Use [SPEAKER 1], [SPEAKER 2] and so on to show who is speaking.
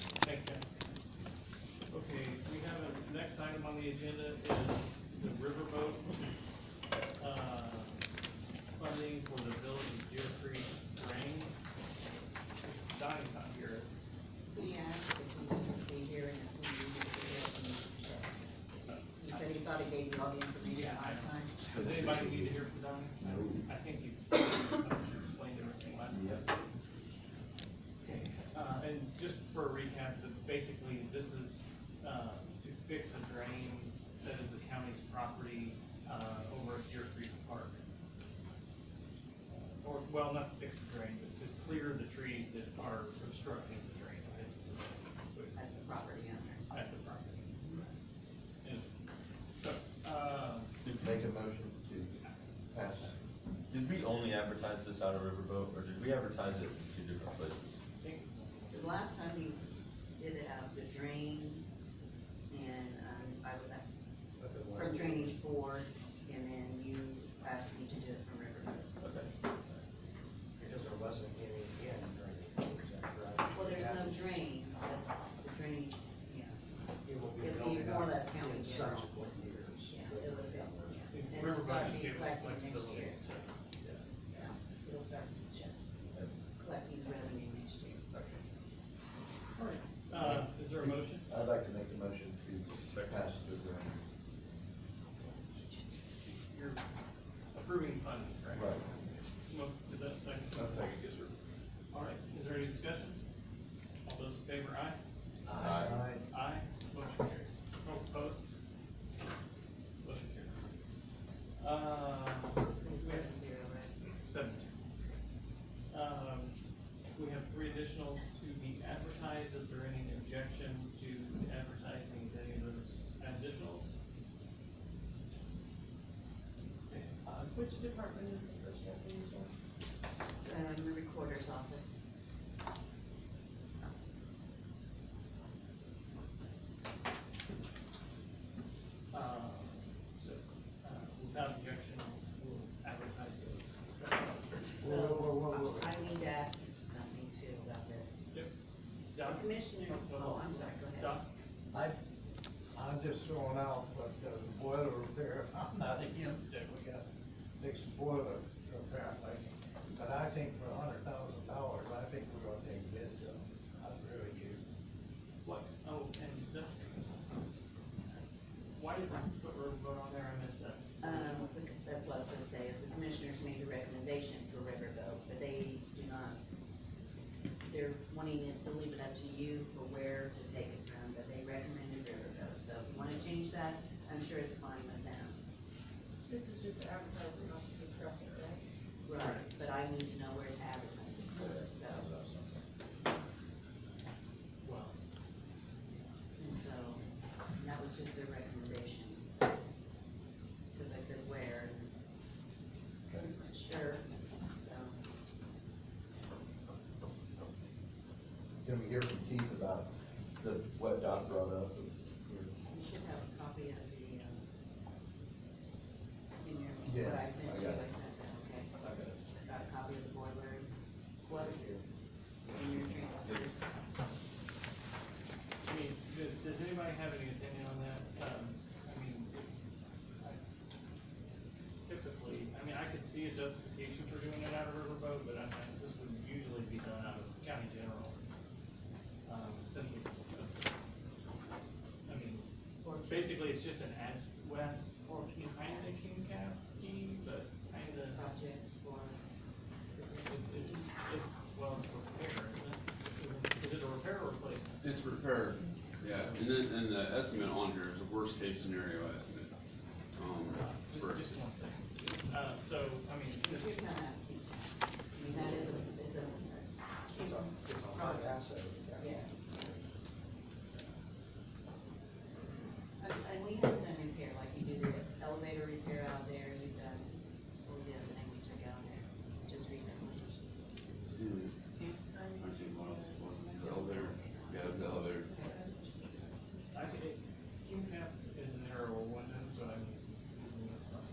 [SPEAKER 1] item on the agenda is the riverboat, uh, funding for the village of Deer Creek drain. Donnie's not here.
[SPEAKER 2] He asked if he could be here and if we needed to do it, and he said, he said he thought he gave you all the information
[SPEAKER 1] Yeah, I
[SPEAKER 2] last
[SPEAKER 1] know.
[SPEAKER 2] time.
[SPEAKER 1] Does anybody need to hear from Donnie? I think you I should explain everything last time. Okay, uh, and just for a recap, the, basically, this is, uh, to fix a drain that is the county's property, uh, over at Deer Creek Park. Or, well, not to fix the drain, but to clear the trees that are obstructing the drain, I guess is the best way to
[SPEAKER 2] As the property owner.
[SPEAKER 1] at the property. Yes. So, uh,
[SPEAKER 3] Make a motion to pass.
[SPEAKER 4] Did we only advertise this out of Riverboat, or did we advertise it in two different places?
[SPEAKER 1] I think,
[SPEAKER 2] The last time we did it out the drains, and, um, I was at, from drainage board, and then you asked me to do it from riverboat.
[SPEAKER 4] Okay.
[SPEAKER 3] Because there wasn't any in during the, is that correct?
[SPEAKER 2] Well, there's no drain, but the drainage, yeah,
[SPEAKER 3] It will be
[SPEAKER 2] it'd be
[SPEAKER 3] built
[SPEAKER 2] more or
[SPEAKER 3] up
[SPEAKER 2] less county
[SPEAKER 3] in
[SPEAKER 2] general.
[SPEAKER 3] subsequent years.
[SPEAKER 2] yeah, it would,
[SPEAKER 1] I
[SPEAKER 2] yeah.
[SPEAKER 1] think
[SPEAKER 2] And it'll
[SPEAKER 1] Riverboat
[SPEAKER 2] start
[SPEAKER 1] just
[SPEAKER 2] being
[SPEAKER 1] gave us the
[SPEAKER 2] collected next
[SPEAKER 1] flexibility
[SPEAKER 2] year.
[SPEAKER 1] to,
[SPEAKER 2] It'll start collecting revenue next year.
[SPEAKER 1] uh, is there a motion?
[SPEAKER 3] I'd like to make a motion to
[SPEAKER 4] Second.
[SPEAKER 3] pass the grant.
[SPEAKER 1] You're approving funding, correct?
[SPEAKER 3] Right.
[SPEAKER 1] Mo- Is that a second?
[SPEAKER 4] yes, sir.
[SPEAKER 1] All right, is there any discussion? All those in favor, aye?
[SPEAKER 4] Aye.
[SPEAKER 1] Aye, motion carries. No opposed? Motion carries. Uh,
[SPEAKER 2] It's
[SPEAKER 1] we have
[SPEAKER 2] seven zero, right?
[SPEAKER 1] Seven zero. Um, we have three additionals to be advertised, is there any objection to advertising any of those additionals? Okay, uh,
[SPEAKER 5] Which department is the first opening for?
[SPEAKER 2] Um, the recorder's office.
[SPEAKER 1] Uh, so, uh, without objection, we'll advertise those.
[SPEAKER 3] Whoa, whoa, whoa, whoa,
[SPEAKER 2] So,
[SPEAKER 3] whoa.
[SPEAKER 2] I I need to ask you something too about this.
[SPEAKER 1] Doc?
[SPEAKER 2] Commissioner, oh, I'm sorry, go ahead.
[SPEAKER 1] Doc?
[SPEAKER 6] I, I'm just throwing out, but uh, the boiler repair, I'm not against it, we gotta fix the boiler apparently. But I think for a hundred thousand dollars, I think we're gonna take a bid, Joe. I really do.
[SPEAKER 1] What? Oh, and that's. Why did Ryan put Riverboat on there, I missed that.
[SPEAKER 2] Um, the- that's what I was gonna say, is the commissioners made a recommendation for riverboat, but they do not, they're wanting it to leave it up to you for where to take it from, but they recommended riverboat, so if you wanna change that, I'm sure it's fine with them.
[SPEAKER 5] This is just advertising, not to discuss it, right?
[SPEAKER 2] Right. But I need to know where to advertise it for, so,
[SPEAKER 1] Well,
[SPEAKER 2] and so, and that was just their recommendation. Cause I said where, and I'm not sure, so,
[SPEAKER 3] Can we hear from Keith about the, what Doc brought up? Or-
[SPEAKER 2] you should have a copy of the, um, in your,
[SPEAKER 3] Yeah,
[SPEAKER 2] what I sent
[SPEAKER 3] I
[SPEAKER 2] you,
[SPEAKER 3] got it.
[SPEAKER 2] I sent that, okay?
[SPEAKER 3] I got it.
[SPEAKER 2] Got a copy of the boiler, what, in your transfers,
[SPEAKER 1] I mean, does, does anybody have any opinion on that? Um, I mean, if- I- typically, I mean, I could see a justification for doing it out of Riverboat, but I, I, this would usually be done out of county general. Um, since it's, uh, I mean,
[SPEAKER 2] or
[SPEAKER 1] basically, it's just an ad, well, or kinda king cap, but kinda,
[SPEAKER 2] project, or, is it,
[SPEAKER 1] it's, it's, it's, well, it's repair, isn't it? Is it a repair or replacement?
[SPEAKER 7] It's repair, yeah, and then, and the estimate on here is a worst case scenario estimate. Um,
[SPEAKER 1] Just,
[SPEAKER 7] for,
[SPEAKER 1] just one second. Uh, so, I mean,
[SPEAKER 2] If
[SPEAKER 1] this-
[SPEAKER 2] you're gonna have to keep
[SPEAKER 7] hmm.